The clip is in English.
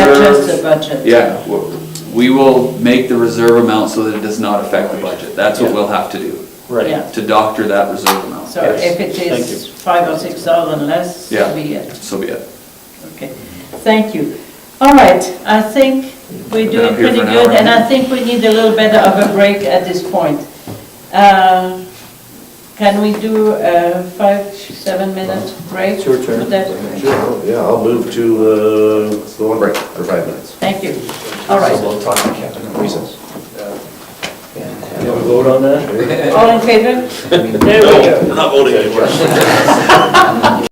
the budget. Yeah, w- we will make the reserve amount so that it does not affect the budget. That's what we'll have to do, Yeah. Right, to doctor that reserve amount. So if it Thank you. is five or six thousand less, Yeah. so be it. So be it. Okay, thank you. All right, I think we're Been doing up here pretty for an good, hour. and I think we need a little bit of a break at this point. Uh, Can we do a five, seven minute break? It's your turn. Would that- Sure, yeah, I'll move to, uh, the one break for five minutes. Thank you. All right, So we'll talk to Kevin. Recess. you have a vote on that? all in favor? There we go. I'm not voting anymore.